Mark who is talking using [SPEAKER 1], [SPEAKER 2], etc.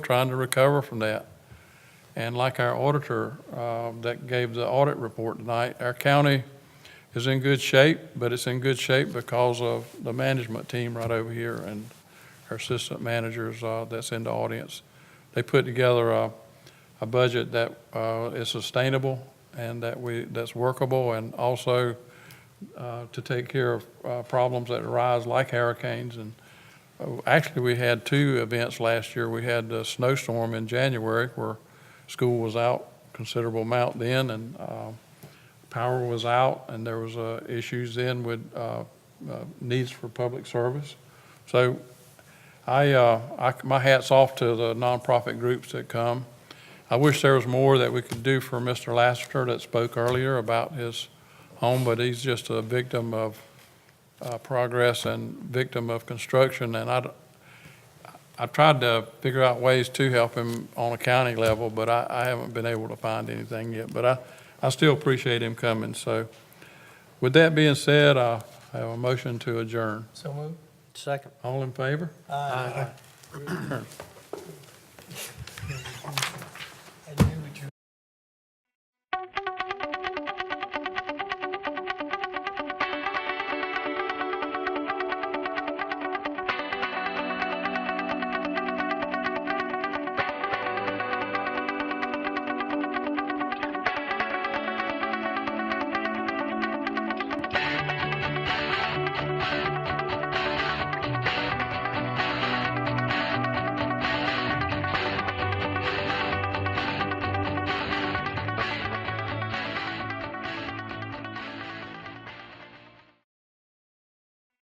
[SPEAKER 1] trying to recover from that. And like our auditor uh, that gave the audit report tonight, our county is in good shape, but it's in good shape because of the management team right over here and our assistant managers uh, that's in the audience. They put together a, a budget that uh, is sustainable and that we, that's workable and also uh, to take care of uh, problems that arise like hurricanes and Oh, Actually, we had two events last year. We had a snowstorm in January where school was out considerable amount then, and uh, power was out, and there was uh, issues then with uh, uh, needs for public service. So I, uh, I, my hat's off to the nonprofit groups that come. I wish there was more that we could do for Mr. Lassiter that spoke earlier about his home, but he's just a victim of uh, progress and victim of construction, and I, d- I tried to figure out ways to help him on a county level, but I, I haven't been able to find anything yet, but I, I still appreciate him coming, so. With that being said, I have a motion to adjourn.
[SPEAKER 2] So moved. Second.
[SPEAKER 1] All in favor?
[SPEAKER 2] Aye.
[SPEAKER 1] We're adjourned.